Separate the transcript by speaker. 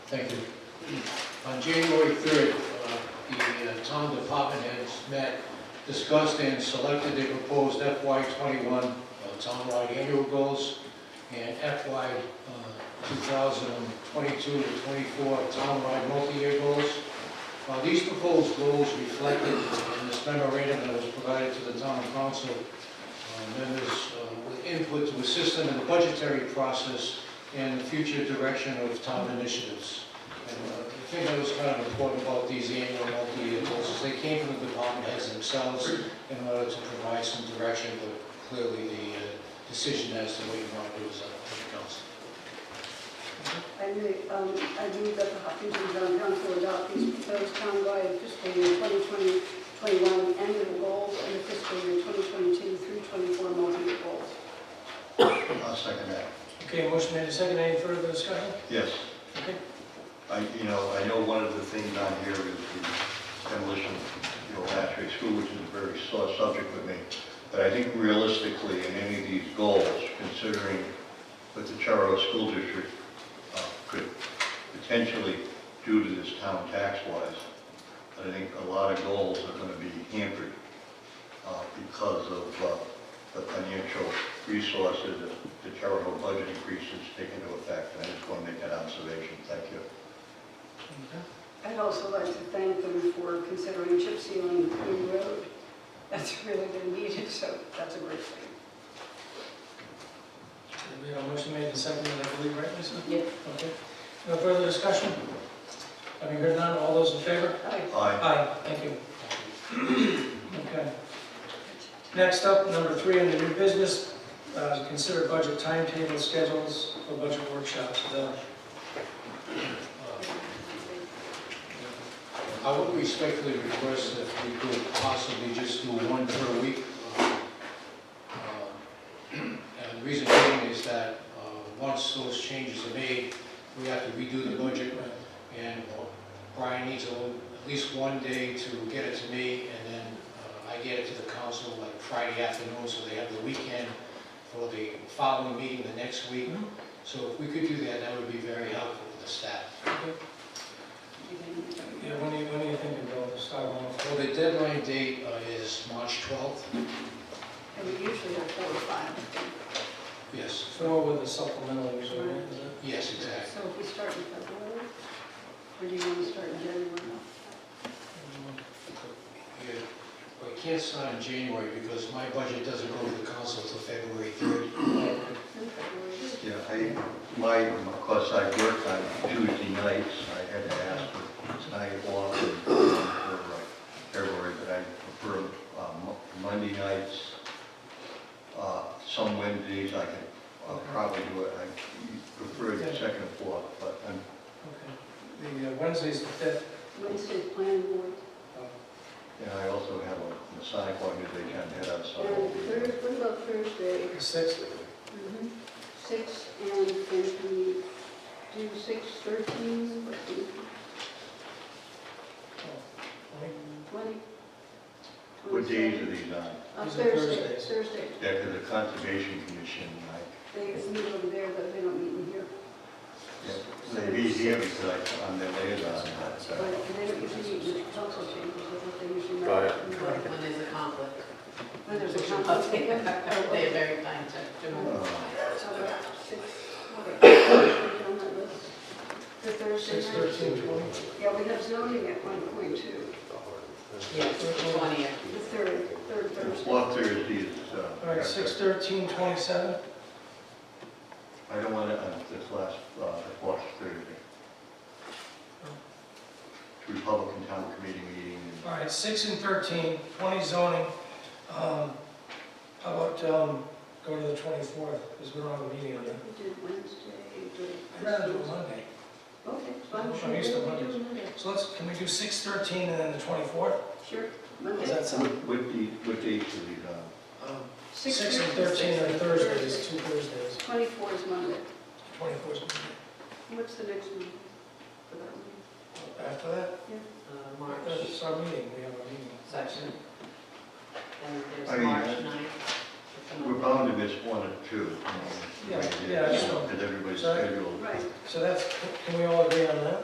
Speaker 1: Thank you. On January 3rd, uh, the uh, town department heads met, discussed and selected their proposed FY '21 uh, townwide annual goals and FY uh, 2022 to '24 townwide multi-year goals. Uh, These proposed goals reflected in this memorandum that was provided to the town council uh, members uh, with input to assist them in the budgetary process and the future direction of town initiatives. And uh, the thing that was kind of important about these annual multi-year goals is they came from the department heads themselves in order to provide some direction, but clearly the uh, decision as to what you want to do is up to the council.
Speaker 2: I move, um, I move that the Hopkinton Town Council adopt these proposed townwide fiscal year 2020, 21 annual goals and the fiscal year 2022 through 24 multi-year goals.
Speaker 3: I'll second that.
Speaker 4: Okay, motion made and seconded. Any further discussion?
Speaker 3: Yes,
Speaker 4: Okay.
Speaker 3: I, you know, I know one of the things on here is the demolition of the old Ashtray School, which is a very sore subject with me. But I think realistically, in any of these goals, considering what the Charter School District uh, could potentially do to this town tax-wise, I think a lot of goals are gonna be hampered uh, because of uh, the financial resources that the charitable budget increases take into effect. And I just want to make that observation. Thank you.
Speaker 2: I'd also like to thank them for considering chip sealing Queen Road. That's really been needed, so that's a great thing.
Speaker 4: We have a motion made and seconded, I believe, right, Lisa?
Speaker 2: Yes.
Speaker 4: Okay. No further discussion? Having heard none, all those in favor?
Speaker 2: Aye.
Speaker 3: Aye.
Speaker 4: Aye, thank you. Okay. Next up, number three on the new business, uh, consider budget timetable schedules for budget workshops. The-
Speaker 1: Uh, I would respectfully request that we could possibly just do one per week. uh, uh, And the reason being is that uh, once those changes are made, we have to redo the budget. And Brian needs a little- at least one day to get it to me, and then uh, I get it to the council like Friday afternoon, so they have the weekend for the following meeting the next week. So if we could do that, that would be very helpful for the staff.
Speaker 4: Yeah, when do you, when do you think it'll start off?
Speaker 1: Well, the deadline date uh, is March 12th,
Speaker 2: And we usually have four or five.
Speaker 1: yes,
Speaker 4: Throw with the supplemental, usually, right? Is it?
Speaker 1: yes, exactly.
Speaker 2: So if we start in February, or do you want to start in January?
Speaker 1: Yeah. But I can't sign in January because my budget doesn't go to the council till February 3rd.
Speaker 2: In February.
Speaker 3: Yeah, I, my, of course, I work on Tuesday nights. I had to ask for tonight off and for like, February, but I prefer uh, Mo- Monday nights. Uh, Some Wednesdays I can uh, probably do it. I prefer the second and fourth, but I'm
Speaker 4: Okay. The uh, Wednesday's the fifth. Uh,
Speaker 2: Wednesday's planning board.
Speaker 3: And I also have a Masonic organization head on
Speaker 2: And Thursday,
Speaker 3: Sunday.
Speaker 2: what about Thursday? Mm-hmm.
Speaker 4: The sixth.
Speaker 2: Six and can we do six thirteen, twenty?
Speaker 3: What days are these on?
Speaker 2: On
Speaker 4: These are
Speaker 2: Uh, Thursday,
Speaker 4: Thursdays.
Speaker 2: Thursday.
Speaker 3: Yeah, 'cause the Conservation Commission, I,
Speaker 2: They meet over there, but they don't meet in here.
Speaker 3: they be here because I- I'm their liaison, but uh,
Speaker 2: But they don't usually meet in the council chambers, that's what they usually meet.
Speaker 5: Got it.
Speaker 2: When
Speaker 6: When there's a conflict.
Speaker 2: there's a conflict.
Speaker 6: They are
Speaker 2: Okay.
Speaker 6: very kind to, to move.
Speaker 3: uh,
Speaker 2: So about six, okay, on that list. The Thursday
Speaker 4: Six
Speaker 2: night.
Speaker 4: thirteen twenty.
Speaker 2: Yeah, we have zoning at one point too,
Speaker 6: Yes, twentieth.
Speaker 2: the third, third
Speaker 3: the
Speaker 2: Thursday.
Speaker 3: fourth Thursday is, uh,
Speaker 4: All right, six thirteen twenty-seven.
Speaker 3: I don't want to, uh, this last, uh, the fourth Thursday. Republican Town Committee meeting, and
Speaker 4: All right, six and thirteen, twenty zoning. Um, How about um, go to the twenty-fourth, because we don't have a meeting on
Speaker 2: We
Speaker 4: that.
Speaker 2: did Wednesday,
Speaker 4: I'd
Speaker 2: did.
Speaker 4: rather do it Monday.
Speaker 2: Okay, so I'm sure.
Speaker 4: I'm used to
Speaker 2: we'll do
Speaker 4: Mondays.
Speaker 2: Monday.
Speaker 4: So let's, can we do six thirteen and then the twenty-fourth?
Speaker 2: Sure,
Speaker 4: Is
Speaker 2: Monday.
Speaker 4: that sound?
Speaker 3: what, what the- what dates are these on?
Speaker 4: Um, Six and thirteen are Thursdays, two Thursdays.
Speaker 2: Twenty-four is Monday.
Speaker 4: Twenty-fourth is
Speaker 2: What's the next meeting? for that one?
Speaker 4: Monday. After that,
Speaker 6: uh, March
Speaker 4: that's our meeting, we have a meeting.
Speaker 6: section. And
Speaker 3: I
Speaker 6: there's
Speaker 3: mean,
Speaker 6: March
Speaker 3: uh, We're
Speaker 6: ninth.
Speaker 3: bound to miss one or two. you know,
Speaker 4: Yeah,
Speaker 3: right,
Speaker 4: yeah, I just
Speaker 3: so,
Speaker 4: don't-
Speaker 3: Because everybody's
Speaker 4: Sorry.
Speaker 3: scheduled.
Speaker 2: Right.
Speaker 4: So that's, can we all agree on that?